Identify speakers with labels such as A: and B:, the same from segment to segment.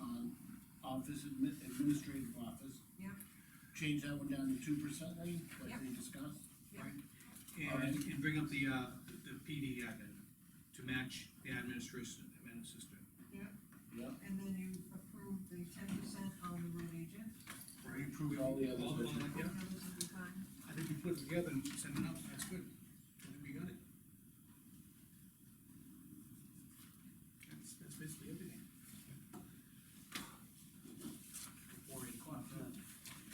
A: uh, office, admi- administrative office.
B: Yep.
A: Change that one down to two percent, Lean, like
B: Yep.
A: we discussed.
C: And, and bring up the, uh, the PD admin to match the administration, admin assistant.
A: Yep.
B: And then you approve the ten percent on the road agent,
A: We approved all the
C: All- all
A: others.
C: that, yeah.
B: the others will be fine.
C: I think we put it together and send it out, that's good. I think we got it. That's, that's basically everything.
D: Before eight o'clock.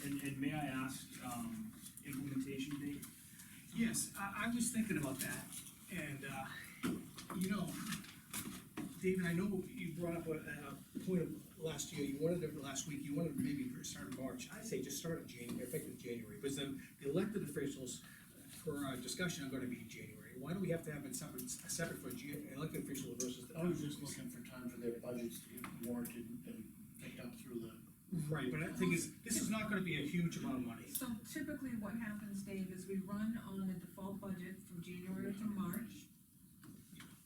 D: And, and may I ask, um, implementation date?
C: Yes, I, I was thinking about that, and, uh, you know, David, I know you brought up a, a point of last year, you wanted to, last week, you wanted to maybe start in March, I'd say just start in January, effective January, because then the elected officials for our discussion are gonna be in January, why do we have to have it separate, separate for G, elected officials versus the.
A: I was just looking for time for their budgets to get warranted and picked up through the.
C: Right, but I think it's, this is not gonna be a huge amount of money.
B: So typically what happens, Dave, is we run on the default budget from January to March,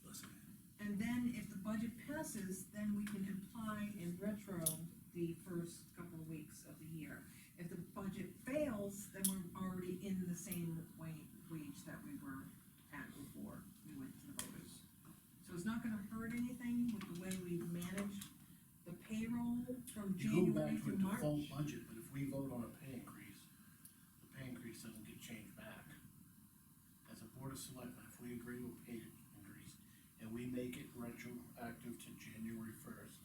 C: Listen,
B: and then if the budget passes, then we can apply in retro the first couple of weeks of the year. If the budget fails, then we're already in the same wa- wage that we were at before we went to the voters. So it's not gonna hurt anything with the way we manage the payroll from
A: You go
B: January
A: back
B: to
A: to a
B: March.
A: default budget, but if we vote on a pay increase, the pay increase doesn't get changed back. As a board of selectmen, if we agree with pay increase and we make it retroactive to January first,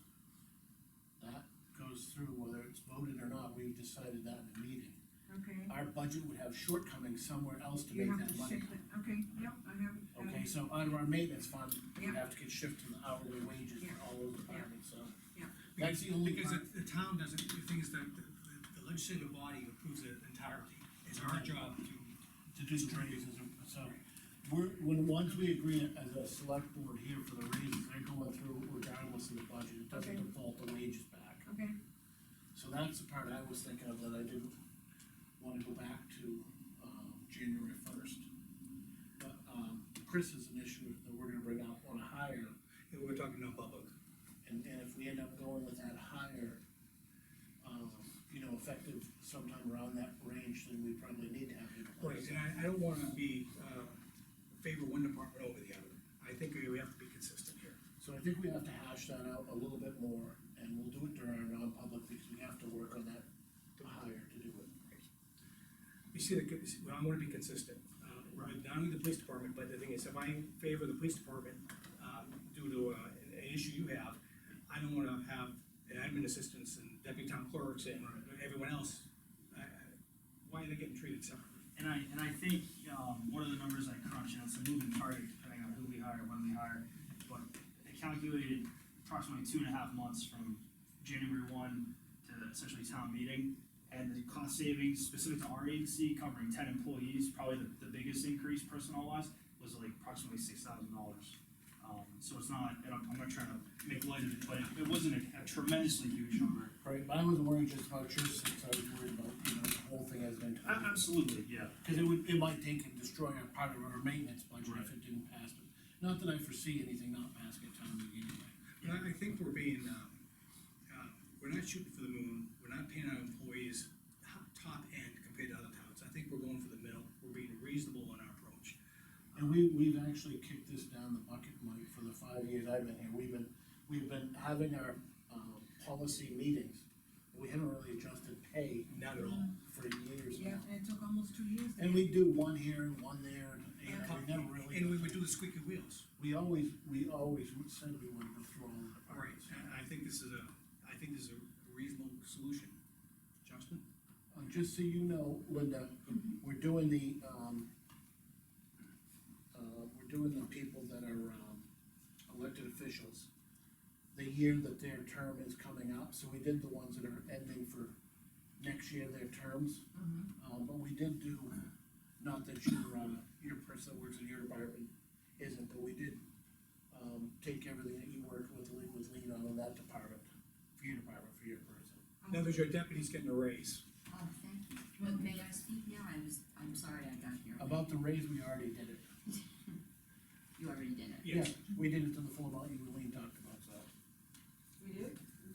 A: that goes through whether it's voted or not, we've decided that in the meeting.
B: Okay.
A: Our budget would have shortcomings somewhere else to
B: You
A: make
B: have
A: that
B: to
A: money.
B: shift it, okay, yep, I have. uh,
A: Okay, so under our maintenance fund, we'd
B: Yeah.
A: have to get shifted to the hourly wages for
B: Yeah.
A: all those departments, so.
B: Yeah.
A: That's the only
C: Because
A: part.
C: the, the town doesn't, the thing is that the, the legislative body approves it entirely, it's our job to
A: to do the raises, and so, we're, when, once we agree as a select board here for the raises, they're going through regardless of the budget, it doesn't
B: Okay.
A: default the wages back.
B: Okay,
A: So that's the part I was thinking of that I didn't wanna go back to, um, January first. But, um, Chris is an issue that we're gonna bring up on a higher,
C: And we're talking non-public.
A: and, and if we end up going with that higher, um, you know, effective sometime around that range, then we probably need to have. it.
C: Right, and I, I don't wanna be, uh, favor one department over the other. I think we have to be consistent here.
A: So I think we have to hash that out a little bit more, and we'll do it during our non-public, because we have to work on that hire to do it.
E: You see, the, well, I wanna be consistent, uh, with not only the police department, but the thing is, if I favor the police department, uh, due to, uh, an- an issue you have, I don't wanna have an admin assistants and deputy town clerks and everyone else, uh, why are they getting treated separately?
D: And I, and I think, um, one of the numbers I crunched, and it's a moving target depending on who we hire, when we hire, but I calculated approximately two and a half months from January one to essentially town meeting. And the cost savings specific to our agency covering ten employees, probably the, the biggest increase personnel wise, was like approximately six thousand dollars. Um, so it's not, and I'm, I'm not trying to make light of it, but it wasn't a- a tremendously huge number.
A: Right, but I was worried just about your six, I was worried about, you know, the whole thing as an
D: A-
A: entire.
D: Absolutely, yeah.
A: Cause it would, it might take and destroy our part of our maintenance budget if it didn't pass, but not that I foresee anything not passing at town meeting anyway.
C: But I, I think we're being, um, uh, we're not shooting for the moon, we're not paying our employees ho- top end compared to other towns. I think we're going for the middle, we're being reasonable in our approach.
A: And we, we've actually kicked this down the bucket, Mike, for the five years I've been here, we've been, we've been having our, um, policy meetings. We haven't really adjusted pay
C: Not at all.
A: for years now.
B: yeah, and it took almost two years. to
A: And we do one here and one there, and, you know, we never
C: And we
A: really,
C: would do the squeaky wheels.
A: we always, we always said we would go through all the departments.
C: And I think this is a, I think this is a reasonable solution. Justin?
A: Uh, just so you know, Linda, we're doing the, um, uh, we're doing the people that are, um, elected officials, the year that their term is coming up, so we did the ones that are ending for next year, their terms. Uh, but we did do, not that your, uh, your person that works in your department isn't, but we did, um, take everything that you worked with, Lee- with Lean on in that department, for your department, for your person.
C: In other words, your deputy's getting a raise.
F: Oh, thank you. Well, may I speak now? I was, I'm sorry I got here.
A: About the raise, we already did it.
F: You already did it.
A: Yeah, we did it to the full amount you and Lean talked